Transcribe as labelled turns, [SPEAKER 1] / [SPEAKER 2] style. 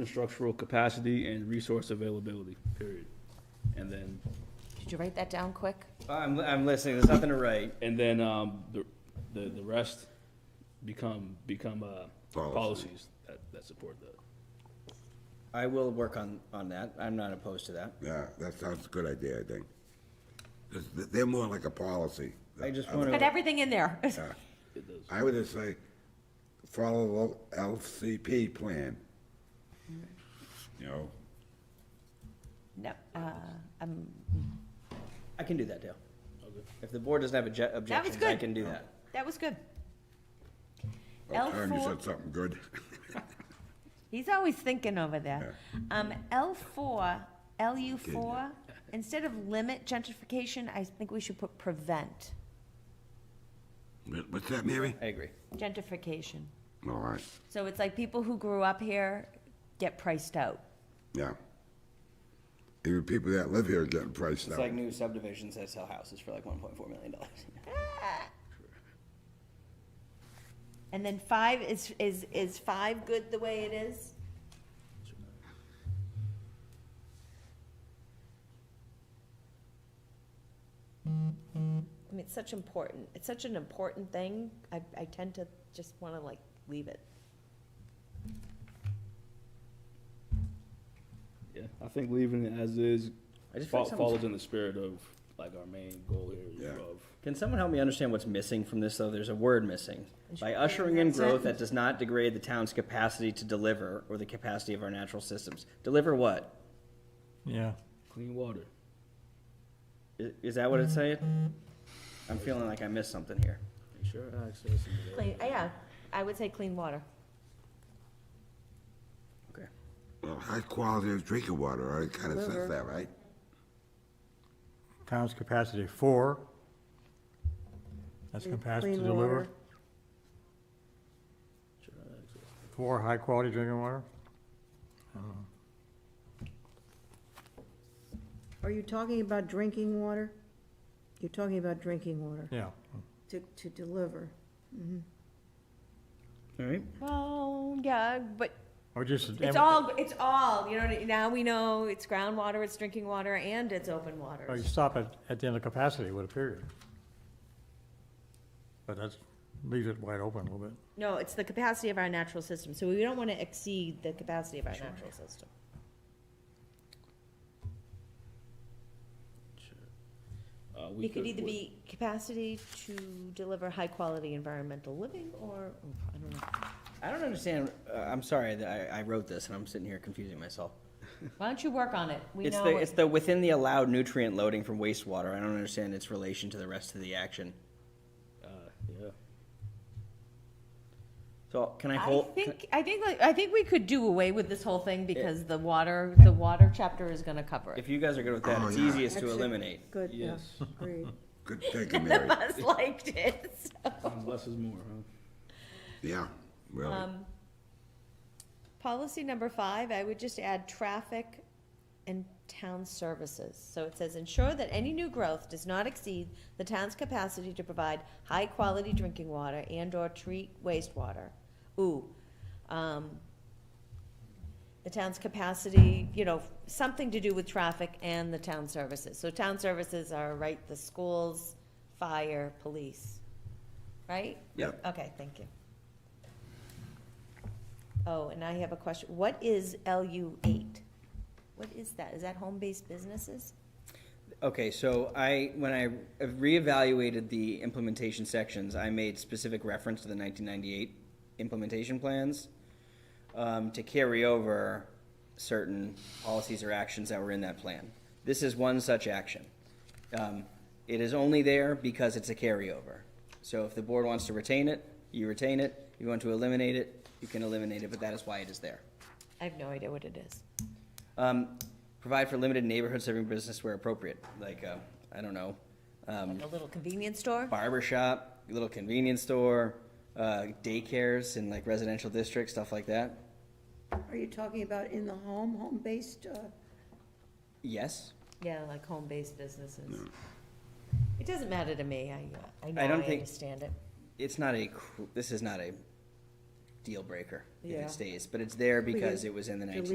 [SPEAKER 1] infrastructural capacity and resource availability, period. And then,
[SPEAKER 2] Did you write that down quick?
[SPEAKER 3] I'm, I'm listening, there's nothing to write.
[SPEAKER 1] and then, um, the, the, the rest become, become, uh,
[SPEAKER 4] Policy.
[SPEAKER 1] policies that, that support that.
[SPEAKER 3] I will work on, on that, I'm not opposed to that.
[SPEAKER 4] Yeah, that sounds a good idea, I think. 'Cause th- They're more like a policy.
[SPEAKER 3] I just
[SPEAKER 4] would-
[SPEAKER 3] wanna-
[SPEAKER 2] Got everything in there.
[SPEAKER 4] yeah.
[SPEAKER 1] It does.
[SPEAKER 4] I would just say, follow the LCP plan. You know,
[SPEAKER 2] No, uh, um,
[SPEAKER 3] I can do that, Dale.
[SPEAKER 1] Okay.
[SPEAKER 3] If the board doesn't have obje- objections, I
[SPEAKER 2] good.
[SPEAKER 3] can do that.
[SPEAKER 2] that was good.
[SPEAKER 4] oh, Tom, you
[SPEAKER 2] L4
[SPEAKER 4] said something good.
[SPEAKER 2] He's always thinking over there. Um, L four, LU four, instead of limit gentrification, I think we should put prevent
[SPEAKER 4] What- What's that, Mary?
[SPEAKER 3] I agree.
[SPEAKER 2] gentrification.
[SPEAKER 4] All right,
[SPEAKER 2] So it's like people who grew up here get priced out.
[SPEAKER 4] yeah. Even people that live here are getting priced
[SPEAKER 3] It's
[SPEAKER 4] out.
[SPEAKER 3] like new subdivisions that sell houses for like one point four million dollars.
[SPEAKER 2] And then five, is, is, is five good the way it is? I mean, it's such important, it's such an important thing, I, I tend to just wanna like leave it.
[SPEAKER 1] Yeah, I think leaving it as is
[SPEAKER 3] I just feel
[SPEAKER 1] fo-
[SPEAKER 3] like someone's-
[SPEAKER 1] follows in the spirit of, like, our main goal here
[SPEAKER 4] Yeah.
[SPEAKER 1] of
[SPEAKER 3] Can someone help me understand what's missing from this, though? There's a word missing. By ushering in growth that does not degrade the town's capacity to deliver or the capacity of our natural systems. Deliver what?
[SPEAKER 5] Yeah.
[SPEAKER 1] clean water.
[SPEAKER 3] I- Is that what it's saying? I'm feeling like I missed something here.
[SPEAKER 1] Ensure access and
[SPEAKER 2] Clean, uh, yeah, I would say clean water.
[SPEAKER 3] Okay.
[SPEAKER 4] Well, high quality of drinking water, already kind of says that, right?
[SPEAKER 5] Town's capacity for. That's capacity to deliver
[SPEAKER 1] ensure access.
[SPEAKER 5] for high-quality drinking water.
[SPEAKER 6] Are you talking about drinking water? You're talking about drinking water
[SPEAKER 5] Yeah.
[SPEAKER 6] to, to deliver.
[SPEAKER 3] All right.
[SPEAKER 2] Well, yeah, but
[SPEAKER 5] Or just.
[SPEAKER 2] it's all, it's all, you know, what I- now we know it's groundwater, it's drinking water, and it's open water.
[SPEAKER 5] Or you stop at, at the end of capacity with a period. But that's, leaves it wide open a little bit.
[SPEAKER 2] No, it's the capacity of our natural system, so we don't want to exceed the capacity of our natural system.
[SPEAKER 1] Uh, we
[SPEAKER 2] It could either
[SPEAKER 1] work-
[SPEAKER 2] be capacity to deliver high-quality environmental living, or, oh, I don't know.
[SPEAKER 3] I don't understand. Uh, I'm sorry that I, I wrote this and I'm sitting here confusing myself.
[SPEAKER 2] Why don't you work on it? We
[SPEAKER 3] It's
[SPEAKER 2] know,
[SPEAKER 3] the, it's
[SPEAKER 2] it-
[SPEAKER 3] the within the allowed nutrient loading from wastewater. I don't understand its relation to the rest of the action.
[SPEAKER 1] Uh, yeah.
[SPEAKER 3] So can I
[SPEAKER 2] I
[SPEAKER 3] hold? can-
[SPEAKER 2] think, I think, like, I think we could do away with this whole thing, because the water, the water chapter is gonna cover it.
[SPEAKER 3] If you guys are good with that,
[SPEAKER 4] Oh,
[SPEAKER 3] it's
[SPEAKER 4] yeah.
[SPEAKER 3] easiest to
[SPEAKER 6] Actually,
[SPEAKER 3] eliminate.
[SPEAKER 6] Good, yeah,
[SPEAKER 1] Yes.
[SPEAKER 6] agreed.
[SPEAKER 4] Good thinking,
[SPEAKER 2] None
[SPEAKER 4] Mary.
[SPEAKER 2] of us liked it, so.
[SPEAKER 3] Oh.
[SPEAKER 1] Um, Less is more, huh?
[SPEAKER 4] Yeah, really.
[SPEAKER 2] Um, Policy number five, I would just add traffic and town services. So it says, ensure that any new growth does not exceed the town's capacity to provide high-quality drinking water and/or treat wastewater. Ooh, um, the town's capacity, you know, something to do with traffic and the town services. So town services are, right, the schools, fire, police, right?
[SPEAKER 4] Yep.
[SPEAKER 2] Okay, thank you. Oh, and I have a question. What is LU eight? What is that? Is that home-based businesses?
[SPEAKER 3] Okay, so I, when I reevaluated the implementation sections, I made specific reference to the nineteen ninety-eight implementation plans um, to carry over certain policies or actions that were in that plan. This is one such action. Um, It is only there because it's a carryover. So if the board wants to retain it, you retain it. If you want to eliminate it, you can eliminate it, but that is why it is there.
[SPEAKER 2] I have no idea what it is.
[SPEAKER 3] Um, provide for limited neighborhood serving business where appropriate, like, uh, I don't know, um,
[SPEAKER 2] Like a little convenience store?
[SPEAKER 3] barber shop, little convenience store, uh, daycares in like residential districts, stuff like that.
[SPEAKER 6] Are you talking about in the home, home-based, uh,
[SPEAKER 3] Yes,
[SPEAKER 2] Yeah, like home-based businesses. It doesn't matter to me. I, I
[SPEAKER 3] I
[SPEAKER 2] know,
[SPEAKER 3] don't
[SPEAKER 2] I
[SPEAKER 3] think-
[SPEAKER 2] understand it.
[SPEAKER 3] it's not a, cr- this is not a deal breaker if
[SPEAKER 7] Yeah.
[SPEAKER 3] it stays, but it's there
[SPEAKER 6] We
[SPEAKER 3] because
[SPEAKER 6] could
[SPEAKER 3] it was in the
[SPEAKER 6] delete
[SPEAKER 3] nineteen